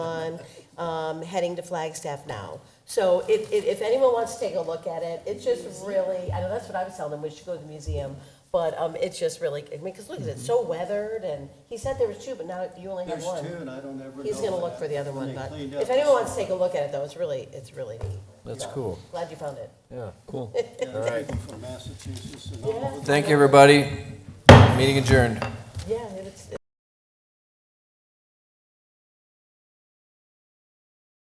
time, um, heading to Flagstaff now. So if, if, if anyone wants to take a look at it, it's just really, I know that's what I was telling them, we should go to the museum. But, um, it's just really, I mean, because look at it, it's so weathered and he said there was two, but now you only have Mm-hmm. There's one. two, and I don't ever know. He's gonna that. look for the other one, When they but cleaned up if anyone the- wants to take a look at it though, it's really, it's really neat. That's So, cool. Glad you found it. Yeah, cool. Yeah, there's people from Massachusetts and all Yeah. over the Thank you, everybody. Meeting adjourned.